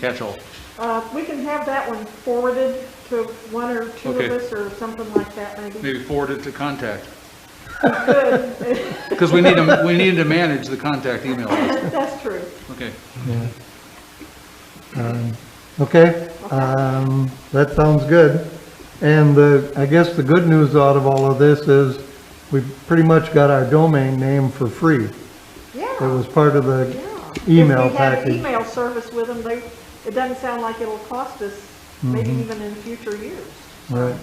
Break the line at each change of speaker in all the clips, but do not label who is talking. catch-all.
Uh, we can have that one forwarded to one or two of
Okay.
us or something like that maybe.
Maybe forward it to contact,
Good.
because we need to, we need to manage the contact email list.
That's true.
Okay.
Yeah. Um, Okay, um, that sounds good. And the, I guess the good news out of all of this is we pretty much got our domain name for free. It
Yeah,
was part of the,
yeah.
Email
If we had an
package.
email service with them, they, it doesn't sound like it'll cost us, maybe
Mm-hmm.
even in future years.
right.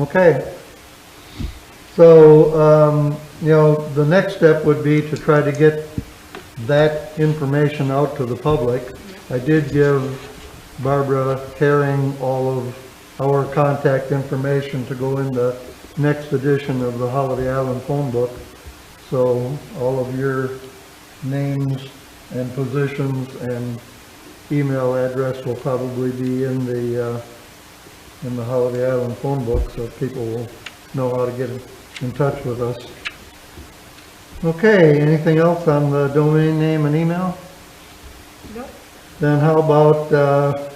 Okay. So, um, you know, the next step would be to try to get that information out to the public. I did give Barbara Herring all of our contact information to go in the next edition of the Holiday Island phone book. So all of your names and positions and email address will probably be in the, uh, in the Holiday Island phone book, so people will know how to get in touch with us. Okay, anything else on the domain name and email?
Nope.
Then how about uh,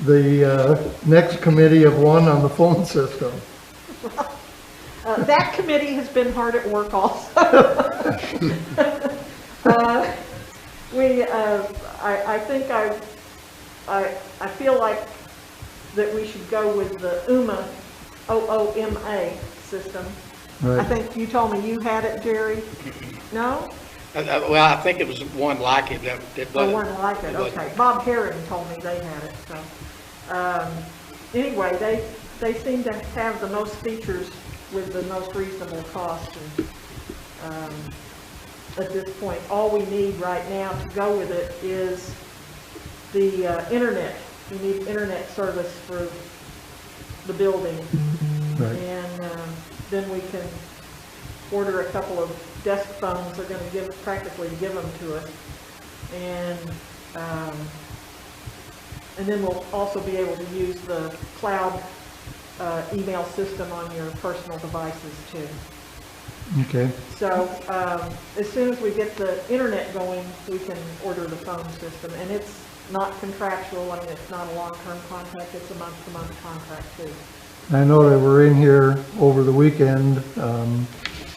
the uh, next committee of one on the phone system?
Uh, That committee has been hard at work also. Uh, We, uh, I, I think I, I, I feel like that we should go with the UMA, O-O-M-A system. I
Right.
think you told me you had it, Jerry. No?
Uh, uh, Well, I think it was one like it that that wasn't.
Or Oh, one like it,
it wasn't.
okay. Bob Herring told me they had it, so. um, Anyway, they, they seem to have the most features with the most reasonable cost. and, um, At this point, all we need right now to go with it is the uh, internet. We need internet service for the building.
Right,
And um, then we can order a couple of desk phones, they're gonna give, practically give them to us. And, um, and then we'll also be able to use the cloud uh, email system on your personal devices too.
okay,
So um, as soon as we get the internet going, we can order the phone system. And it's not contractual, I mean, it's not a long-term contract, it's a month-to-month contract too.
I know that we're in here over the weekend, um,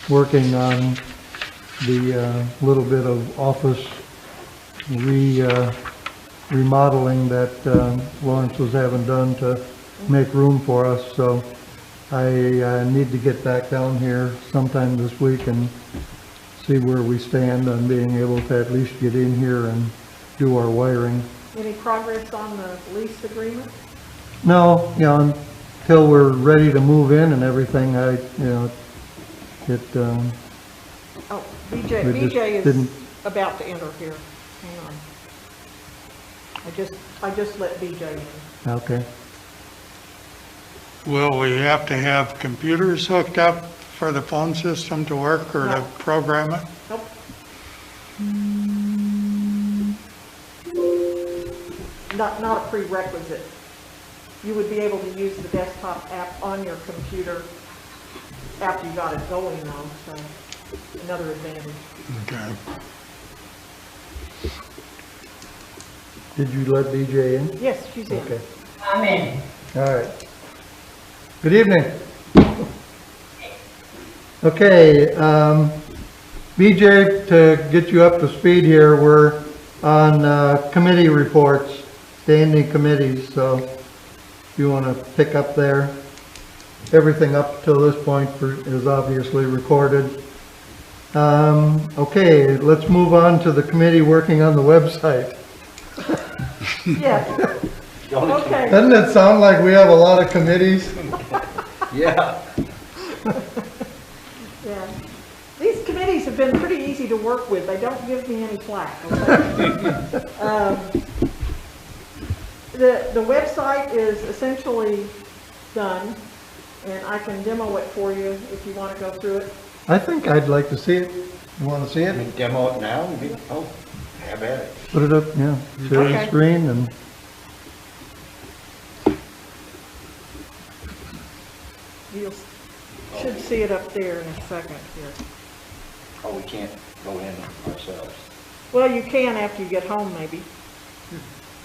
working on the uh, little bit of office re, uh, remodeling that um, Lawrence was having done to make room for us, so I uh, need to get back down here sometime this week and see where we stand on being able to at least get in here and do our wiring.
Any progress on the lease agreement?
No, you know, until we're ready to move in and everything, I, you know, it, um,
Oh, BJ,
We just
BJ is
didn't-
about to enter here. Hang on. I just, I just let BJ in.
okay.
Will we have to have computers hooked up for the phone system to work or to
No.
program it?
Nope. Not, not a prerequisite. You would be able to use the desktop app on your computer after you got it going though, so another advantage.
Okay.
Did you let BJ in?
Yes, she's in.
Okay,
I'm in.
all right. Good evening. Okay, um, BJ, to get you up to speed here, we're on uh, committee reports, standing committees, so if you want to pick up there. Everything up till this point for- is obviously recorded. Um, Okay, let's move on to the committee working on the website.
Yes. Okay.
Doesn't it sound like we have a lot of committees?
Yeah. These committees have been pretty easy to work with. They don't give me any flack, okay? Um, The, the website is essentially done, and I can demo it for you if you want to go through it.
I think I'd like to see it. You want to see
I
it?
mean, demo it now, we, oh, have at it.
Put it up, yeah, share the
Okay.
screen and,
You will should see it up there in a second here.
Oh, we can't go in ourselves.
Well, you can after you get home, maybe.